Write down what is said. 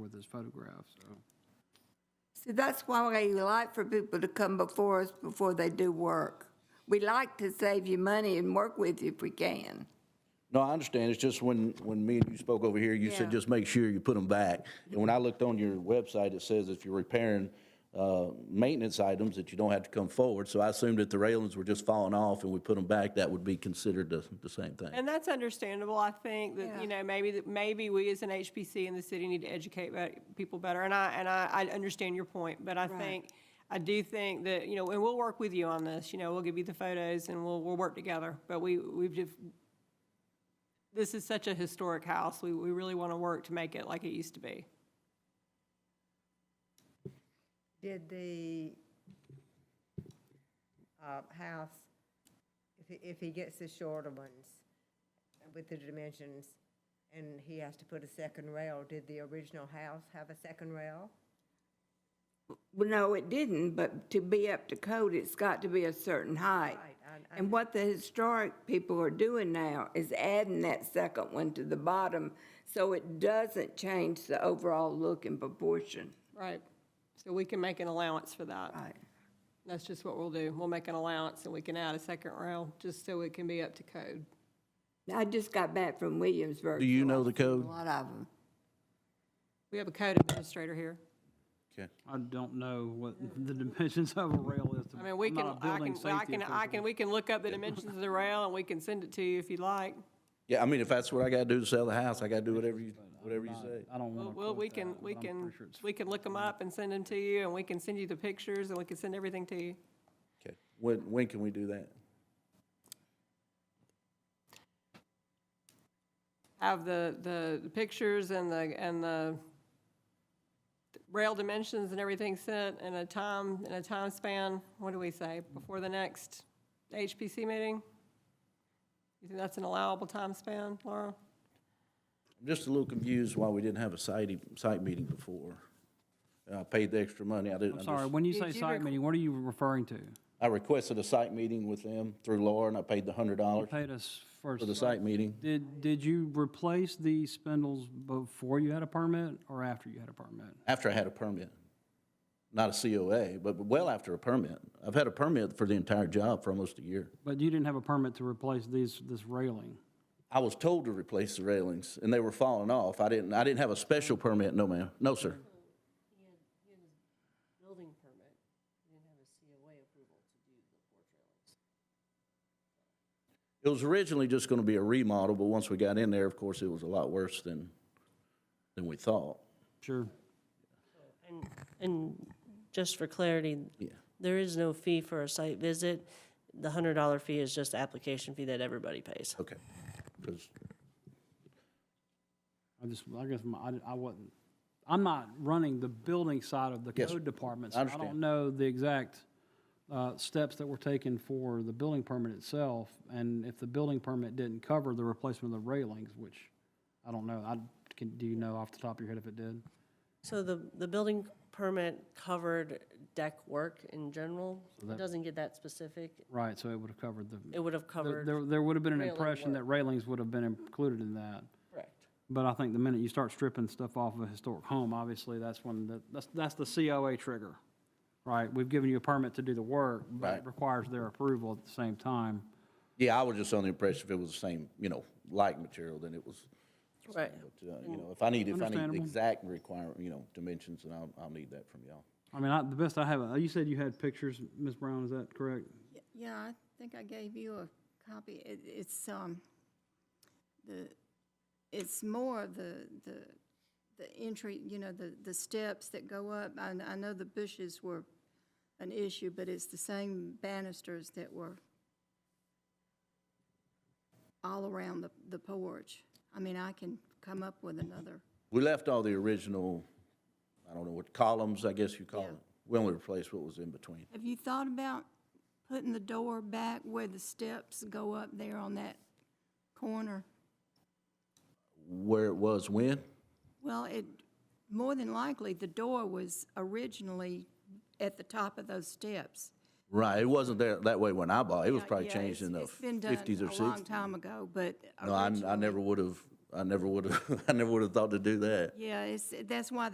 with this photograph, so. See, that's why we like for people to come before us before they do work. We like to save you money and work with you if we can. No, I understand. It's just when, when me and you spoke over here, you said Yeah. just make sure you put them back. And when I looked on your website, it says if you're repairing, uh, maintenance items, that you don't have to come forward. So I assumed that the railings were just falling off and we put them back, that would be considered the, the same thing. And that's understandable, I think, that, Yeah. you know, maybe, that- maybe we as an HPC in the city need to educate bet- people better, and I, and I, I understand your point, but I think, I do think that, you know, and we'll work with you on this, you know, we'll give you the photos and we'll, we'll work together, but we, we've just, this is such a historic house, we, we really want to work to make it like it used to be. Did the uh, house, if he, if he gets the shorter ones with the dimensions and he has to put a second rail, did the original house have a second rail? Well, no, it didn't, but to be up to code, it's got to be a certain height. Right, I- I And what the historic people are doing now is adding that second one to the bottom so it doesn't change the overall look and proportion. Right. So we can make an allowance for that. Right. That's just what we'll do, we'll make an allowance and we can add a second rail, just so it can be up to code. I just got back from Williamsburg. Do you so know I've the seen code? A lot of them. We have a code administrator here. Okay. I don't know what the dimensions of a rail is. I mean, we I'm can, not a I building can, well, I safety can, I official. can, we can look up the dimensions of the rail and we can send it to you if you'd like. Yeah, I mean, if that's what I gotta do to sell the house, I gotta do whatever you, whatever you say. I don't want to. Well, we can, we can, we can look them up and send them to you and we can send you the pictures and we can send everything to you. Okay. When, when can we do that? Have the, the the pictures and the, and the rail dimensions and everything sent in a time, in a time span, what do we say, before the next HPC meeting? You think that's an allowable time span, Laura? I'm just a little confused why we didn't have a site, e- site meeting before. And I paid the extra money. I didn't. I'm I sorry, just- when you Did say you site requ- meeting, what are you referring to? I requested a site meeting with them through Laura and I paid the hundred dollars Paid us first. for the site meeting. Did, did you replace the spindles before you had a permit or after you had a permit? After I had a permit. Not a COA, but well after a permit. I've had a permit for the entire job for almost a year. But you didn't have a permit to replace these, this railing. I was told to replace the railings and they were falling off. I didn't, I didn't have a special permit, no ma'am. No, sir. building permit, you didn't have a COA approval to do the porch railings. It was originally just gonna be a remodel, but once we got in there, of course, it was a lot worse than, than we thought. Sure. And, and just for clarity, Yeah. there is no fee for a site visit. The hundred dollar fee is just application fee that everybody pays. Okay. 'Cause- I just, I guess, my- I, I wasn't, I'm not running the building side of the Yes, code department. I so I understand. don't know the exact, uh, steps that were taken for the building permit itself, and if the building permit didn't cover the replacement of the railings, which I don't know, I, can, do you know off the top of your head if it did? So the, the building permit covered deck work in general. It doesn't get that specific. Right, so it would have covered the, It would have there- covered, there, there would have been an railing impression that railings would have been included in that. correct. But I think the minute you start stripping stuff off of a historic home, obviously, that's when, the- that's, that's the COA trigger, right? We've given you a permit to do the work, but it Right. requires their approval at the same time. Yeah, I was just under the impression if it was the same, you know, like material, then it was. Right. But, uh, you know, if I need, if I need Understandable. exact requirement, you know, dimensions, then I'll, I'll need that from y'all. I mean, I, the best I have, you said you had pictures, Ms. Brown, is that correct? Y- Yeah, I think I gave you a copy. It, it's, um, the, it's more the, the, the entry, you know, the, the steps that go up. I, I know the bushes were an issue, but it's the same banisters that were all around the, the porch. I mean, I can come up with another. We left all the original, I don't know what, columns, I guess you call Yeah. it. We only replaced what was in between. Have you thought about putting the door back where the steps go up there on that corner? Where it was when? Well, it, more than likely, the door was originally at the top of those steps. Right, it wasn't there that way when I bought. It was Yeah, probably yeah, changed it's- in the it's been done fifties or A long sixties. time ago, but. No, I, I originally- never would have, I never would have, I never would have thought to do that. Yeah, it's, that's why